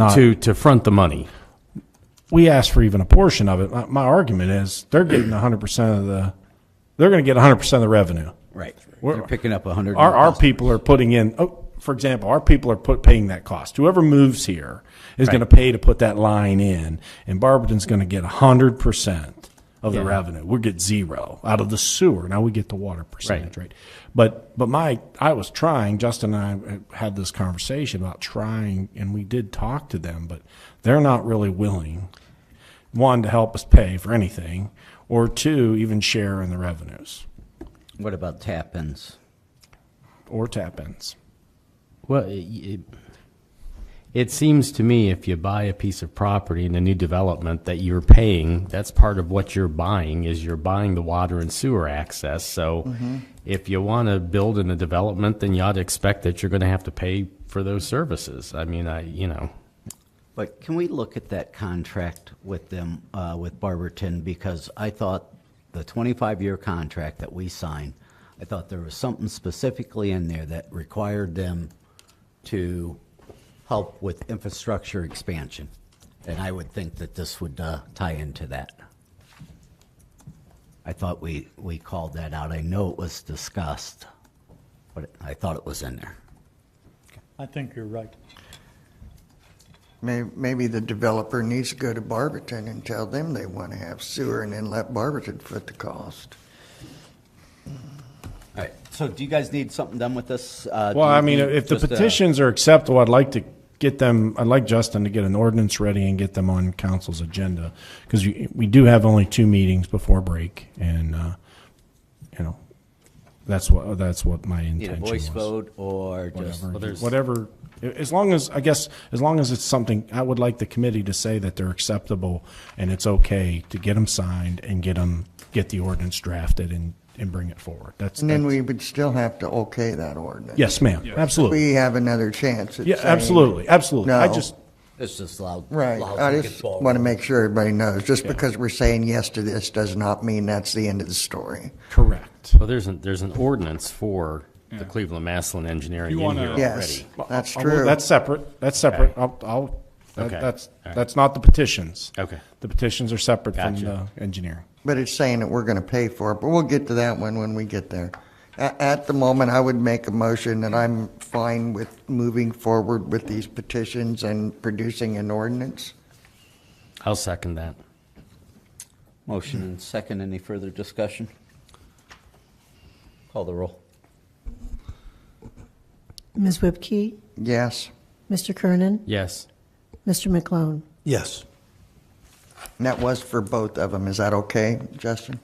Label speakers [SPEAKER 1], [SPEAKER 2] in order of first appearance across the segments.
[SPEAKER 1] not.
[SPEAKER 2] to, to front the money.
[SPEAKER 1] we asked for even a portion of it. My, my argument is they're getting 100% of the, they're going to get 100% of the revenue.
[SPEAKER 3] Right.
[SPEAKER 1] We're-
[SPEAKER 3] They're picking up a hundred.
[SPEAKER 1] Our, our people are putting in, oh, for example, our people are put, paying that cost. Whoever moves here is going to pay to put that line in, and Barberton's going to get 100% of the revenue. We get zero out of the sewer. Now we get the water percentage, right? But, but my, I was trying, Justin and I uh, had this conversation about trying, and we did talk to them, but they're not really willing one to help us pay for anything or two even share in the revenues
[SPEAKER 3] What about tap-ins?
[SPEAKER 1] or tap ins
[SPEAKER 2] Well, it- it, it seems to me if you buy a piece of property in a new development that you're paying, that's part of what you're buying is you're buying the water and sewer access. So
[SPEAKER 3] Mm-hmm.
[SPEAKER 2] if you want to build in a development, then you ought to expect that you're going to have to pay for those services. I mean, I, you know,
[SPEAKER 3] But can we look at that contract with them, uh, with Barberton? Because I thought the twenty-five year contract that we signed, I thought there was something specifically in there that required them to help with infrastructure expansion. And I would think that this would, uh, tie into that. I thought we, we called that out. I know it was discussed, but I thought it was in there.
[SPEAKER 4] I think you're right.
[SPEAKER 5] May- Maybe the developer needs to go to Barberton and tell them they want to have sewer and then let Barberton foot the cost.
[SPEAKER 3] All right, so do you guys need something done with this? Uh,
[SPEAKER 1] Well,
[SPEAKER 3] do you
[SPEAKER 1] I mean,
[SPEAKER 3] need
[SPEAKER 1] if the
[SPEAKER 3] just a-
[SPEAKER 1] petitions are acceptable, I'd like to get them, I'd like Justin to get an ordinance ready and get them on council's agenda. Because we do have only two meetings before break and, uh, you know, that's what, that's what my
[SPEAKER 3] Need a
[SPEAKER 1] intention
[SPEAKER 3] voice
[SPEAKER 1] was.
[SPEAKER 3] vote or just?
[SPEAKER 1] Whatever, whatever, as long as, I guess, as long as it's something, I would like the committee to say that they're acceptable and it's okay to get them signed and get them, get the ordinance drafted and, and bring it forward. That's,
[SPEAKER 5] And then
[SPEAKER 1] that's-
[SPEAKER 5] we would still have to okay that ordinance.
[SPEAKER 1] yes, ma'am, absolutely.
[SPEAKER 5] We have another chance at
[SPEAKER 1] Yeah,
[SPEAKER 5] saying-
[SPEAKER 1] absolutely, absolutely. I
[SPEAKER 5] No.
[SPEAKER 1] just,
[SPEAKER 3] It's just loud.
[SPEAKER 5] Right.
[SPEAKER 3] loud
[SPEAKER 5] I
[SPEAKER 3] and
[SPEAKER 5] just
[SPEAKER 3] get ball
[SPEAKER 5] want to
[SPEAKER 3] rolling.
[SPEAKER 5] make sure everybody knows, just because we're saying yes to this does not mean that's the end of the story.
[SPEAKER 1] Correct.
[SPEAKER 2] well, there's an, there's an ordinance for the Cleveland Maslin Engineering
[SPEAKER 4] You
[SPEAKER 2] in
[SPEAKER 4] wanna-
[SPEAKER 2] here
[SPEAKER 5] Yes,
[SPEAKER 2] already.
[SPEAKER 5] that's
[SPEAKER 1] I'll move-
[SPEAKER 5] true.
[SPEAKER 1] That's separate, that's separate. I'll, I'll, that-
[SPEAKER 2] Okay.
[SPEAKER 1] that's,
[SPEAKER 2] All right.
[SPEAKER 1] that's not the petitions.
[SPEAKER 2] Okay.
[SPEAKER 1] The petitions are separate from the
[SPEAKER 2] Gotcha.
[SPEAKER 1] engineering.
[SPEAKER 5] But it's saying that we're going to pay for it, but we'll get to that one when we get there. At, at the moment, I would make a motion that I'm fine with moving forward with these petitions and producing an ordinance.
[SPEAKER 2] I'll second that.
[SPEAKER 3] Motion and second. Any further discussion? Call the roll.
[SPEAKER 6] Ms. Whipke,
[SPEAKER 5] Yes.
[SPEAKER 6] Mr. Kernan,
[SPEAKER 2] Yes.
[SPEAKER 6] Mr. McLone.
[SPEAKER 7] Yes.
[SPEAKER 5] And that was for both of them. Is that okay, Justin?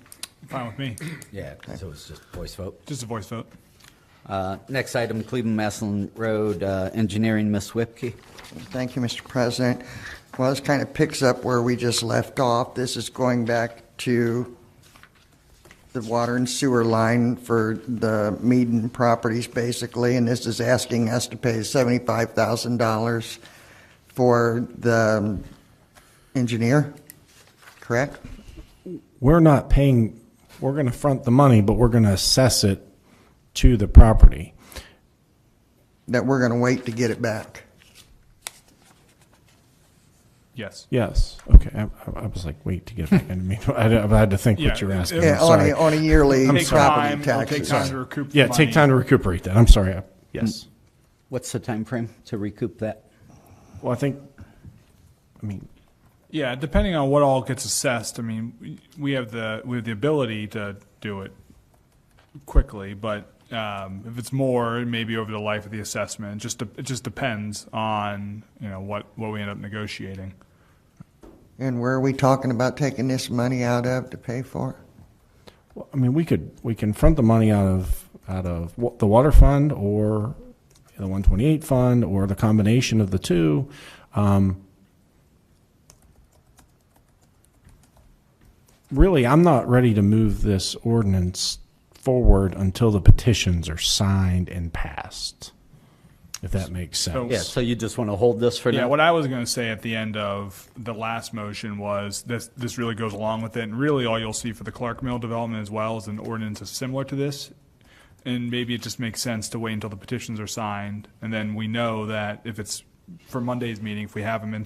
[SPEAKER 4] Fine with me.
[SPEAKER 3] Yeah, so it's just voice vote.
[SPEAKER 4] Just a voice vote.
[SPEAKER 3] Uh, next item, Cleveland Maslin Road uh, Engineering, Miss Whipke.
[SPEAKER 5] Thank you, Mr. President. Well, this kind of picks up where we just left off. This is going back to the water and sewer line for the Meaden properties, basically, and this is asking us to pay seventy-five thousand dollars for the um, engineer, correct?
[SPEAKER 1] We're not paying, we're gonna front the money, but we're gonna assess it to the property.
[SPEAKER 5] That we're going to wait to get it back.
[SPEAKER 4] Yes.
[SPEAKER 1] Yes, okay, I, I- I was like, wait, to get, back into me. I mean, I had to think what
[SPEAKER 4] Yeah,
[SPEAKER 1] you were
[SPEAKER 4] it-
[SPEAKER 1] asking,
[SPEAKER 4] it-
[SPEAKER 1] I'm
[SPEAKER 5] Yeah, on a, on a
[SPEAKER 1] sorry.
[SPEAKER 5] yearly
[SPEAKER 4] Take
[SPEAKER 5] property
[SPEAKER 4] time, it'll take
[SPEAKER 5] taxes.
[SPEAKER 4] time to recoup the
[SPEAKER 1] Yeah, take
[SPEAKER 4] money.
[SPEAKER 1] time to recuperate that, I'm sorry, I- yes.
[SPEAKER 3] What's the time frame to recoup that?
[SPEAKER 1] Well, I think, I mean,
[SPEAKER 4] Yeah, depending on what all gets assessed, I mean, we- we have the, we have the ability to do it quickly, but um, if it's more, maybe over the life of the assessment, it just, de- it just depends on, you know, what, what we end up negotiating.
[SPEAKER 5] And where are we talking about taking this money out of to pay for it?
[SPEAKER 1] Well, I mean, we could, we can front the money out of, out of wa- the water fund or the one twenty-eight fund or the combination of the two. Um, Really, I'm not ready to move this ordinance forward until the petitions are signed and passed, if that makes sense.
[SPEAKER 3] Yeah, so you just want to hold this for
[SPEAKER 4] Yeah,
[SPEAKER 3] now?
[SPEAKER 4] what I was going to say at the end of the last motion was this, this really goes along with it. And really, all you'll see for the Clark Mill development as well is an ordinance that's similar to this. And maybe it just makes sense to wait until the petitions are signed. And then we know that if it's for Monday's meeting, if we have them in